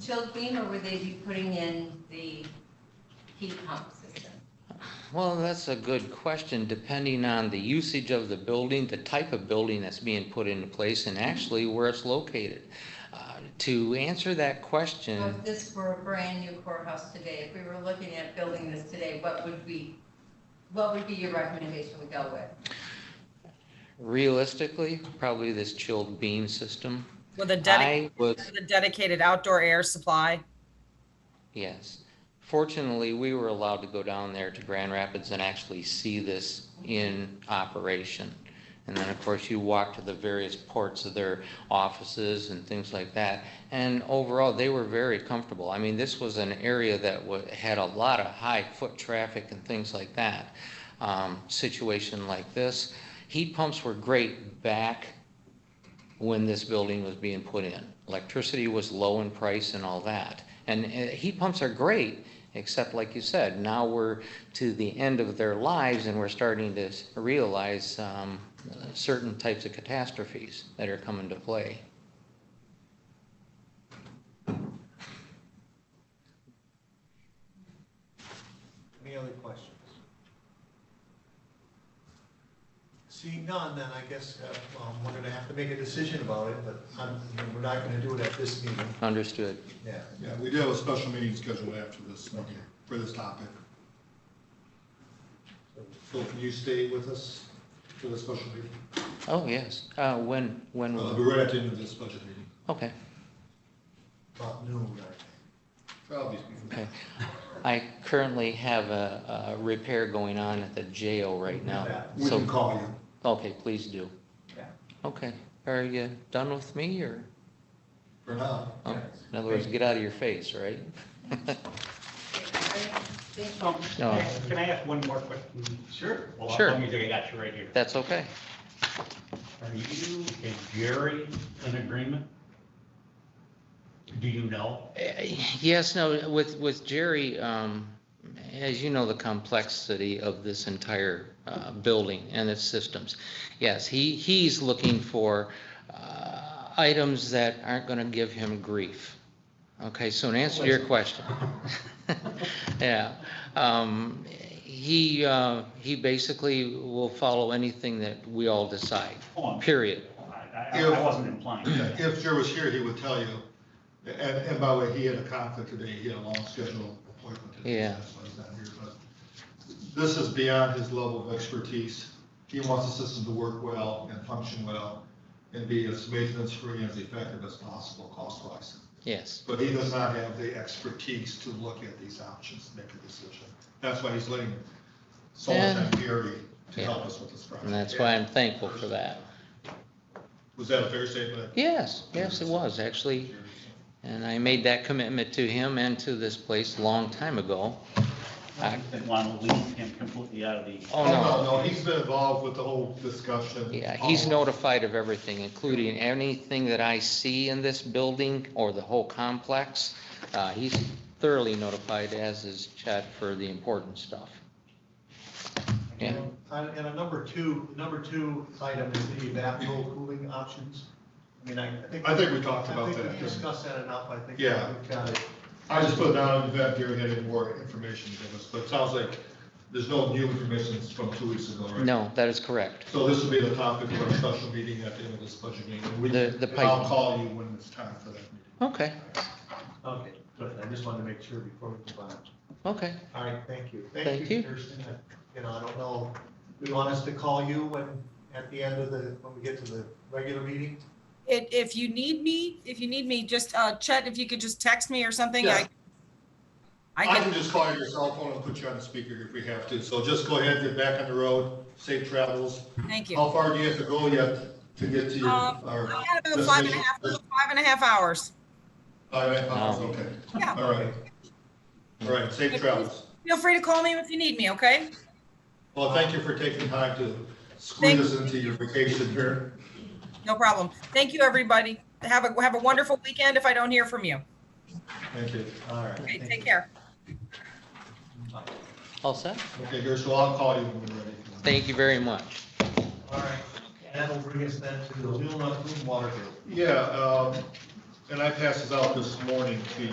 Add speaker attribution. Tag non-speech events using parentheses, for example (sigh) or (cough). Speaker 1: chilled beam or would they be putting in the heat pump system?
Speaker 2: Well, that's a good question, depending on the usage of the building, the type of building that's being put into place, and actually where it's located. Uh, To answer that
Speaker 1: So
Speaker 2: question,
Speaker 1: if this were a brand new courthouse today, if we were looking at building this today, what would we, what would be your recommendation we go with?
Speaker 2: realistically, probably this chilled beam system.
Speaker 3: With a dedicated,
Speaker 2: I was
Speaker 3: with a dedicated outdoor air supply.
Speaker 2: Yes. Fortunately, we were allowed to go down there to Grand Rapids and actually see this in operation. And then, of course, you walk to the various ports of their offices and things like that. And overall, they were very comfortable. I mean, this was an area that wa- had a lot of high foot traffic and things like that. Um, Situation like this, heat pumps were great back when this building was being put in. Electricity was low in price and all that. And uh, heat pumps are great, except like you said, now we're to the end of their lives and we're starting to s- realize um, certain types of catastrophes that are coming to play.
Speaker 4: Any other questions? Seeing none, then I guess uh, um, we're going to have to make a decision about it, but I'm- we're not going to do it at this meeting.
Speaker 2: Understood.
Speaker 4: Yeah.
Speaker 5: Yeah, we do have a special meeting scheduled after this, meeting for this topic. Phil, can you stay with us for the special meeting?
Speaker 2: Oh, yes. Uh, When, when,
Speaker 5: Uh,
Speaker 2: will-
Speaker 5: It'll be right at the end of this budget meeting.
Speaker 2: okay,
Speaker 4: About noon, I think.
Speaker 5: Probably.
Speaker 2: okay. I currently have a a repair going on at the jail right now.
Speaker 5: We
Speaker 2: So,
Speaker 5: can call you.
Speaker 2: okay, please do.
Speaker 4: Yeah.
Speaker 2: Okay, are you done with me or?
Speaker 5: For now.
Speaker 2: Oh, In other words, get out of your face, right?
Speaker 6: Um,
Speaker 2: No.
Speaker 6: Can I ask one more question?
Speaker 4: Sure.
Speaker 6: Well,
Speaker 2: Sure.
Speaker 6: Let me think I got you right here.
Speaker 2: That's okay.
Speaker 6: Are you and Jerry in agreement? Do you know?
Speaker 2: Eh, Yes, no, with, with Jerry, um, as you know, the complexity of this entire, uh, building and its systems. Yes, he, he's looking for, uh, items that aren't gonna give him grief. Okay, so in answer to your question. (laughs) Yeah, um, he, uh, he basically will follow anything that we all decide,
Speaker 6: Oh, I'm-
Speaker 2: period.
Speaker 6: I, I- I wasn't implying. that.
Speaker 5: If Joe was here, he would tell you. And, and by the way, he had a conflict today. He had a long scheduled appointment. today,
Speaker 2: Yeah.
Speaker 5: That's why he's not here, but this is beyond his level of expertise. He wants the system to work well and function well and be as maintenance-free and as effective as possible cost-wise.
Speaker 2: Yes,
Speaker 5: But he does not have the expertise to look at these options, and make a decision. That's why he's letting Solomon
Speaker 2: And-
Speaker 5: Fury to
Speaker 2: Yeah.
Speaker 5: help us with this project.
Speaker 2: and that's why I'm thankful for that.
Speaker 5: Was that a fair statement?
Speaker 2: Yes, yes, it was, actually. And I made that commitment to him and to this place a long time ago.
Speaker 6: I didn't want to leave him completely out of the.
Speaker 2: Oh, no.
Speaker 5: No, he's been involved with the whole discussion. Um,
Speaker 2: Yeah, he's
Speaker 5: All-
Speaker 2: notified of everything, including anything that I see in this building or the whole complex. Uh, He's thoroughly notified, as is Chad, for the important stuff. Yeah.
Speaker 4: On- And a number two, number two item is the evaporative cooling options. I mean, I I think.
Speaker 5: I think we talked about
Speaker 4: I
Speaker 5: that,
Speaker 4: think we
Speaker 5: didn't we?
Speaker 4: discussed that enough. I think.
Speaker 5: Yeah.
Speaker 4: we've got it.
Speaker 5: I just put down in fact, Gary had any more information to give us, but it sounds like there's no new information from two weeks ago, right?
Speaker 2: No, that is correct.
Speaker 5: So this will be the topic for our special meeting at the end of this budget meeting. and we-
Speaker 2: The- the
Speaker 5: and I'll
Speaker 2: pipe-
Speaker 5: call you when it's time for that meeting.
Speaker 2: Okay,
Speaker 4: Okay, good. I just wanted to make sure before we move on.
Speaker 2: okay.
Speaker 4: All right, thank you.
Speaker 2: Thank you.
Speaker 4: Kirsten. You know, I don't know, do you want us to call you when, at the end of the, when we get to the regular meeting?
Speaker 3: If, if you need me, if you need me, just, uh, Chet, if you could just text me or something, I.
Speaker 5: Yeah.
Speaker 3: I
Speaker 5: I
Speaker 3: can,
Speaker 5: can just call your cell phone and put you on the speaker if we have to, so just go ahead, get back on the road, safe travels.
Speaker 3: thank you.
Speaker 5: How far do you have to go yet to get to your,
Speaker 3: Um,
Speaker 5: our?
Speaker 3: I got about five and a half, five and a half hours.
Speaker 5: Five and a half,
Speaker 2: No.
Speaker 5: okay,
Speaker 3: Yeah.
Speaker 5: all right. All right, safe travels.
Speaker 3: Feel free to call me if you need me, okay?
Speaker 5: Well, thank you for taking time to squeeze us into your vacation here.
Speaker 3: No problem. Thank you, everybody. Have a, have a wonderful weekend if I don't hear from you.
Speaker 5: Thank you.
Speaker 4: All right.
Speaker 3: Okay,
Speaker 4: thank
Speaker 3: take
Speaker 4: you.
Speaker 3: care.
Speaker 2: All set?
Speaker 5: Okay, Gary, so I'll call you when we're ready.
Speaker 2: Thank you very much.
Speaker 4: All right, that'll bring us then to the Wheelnut Water Bill.
Speaker 5: Yeah, um, and I passed this out this morning to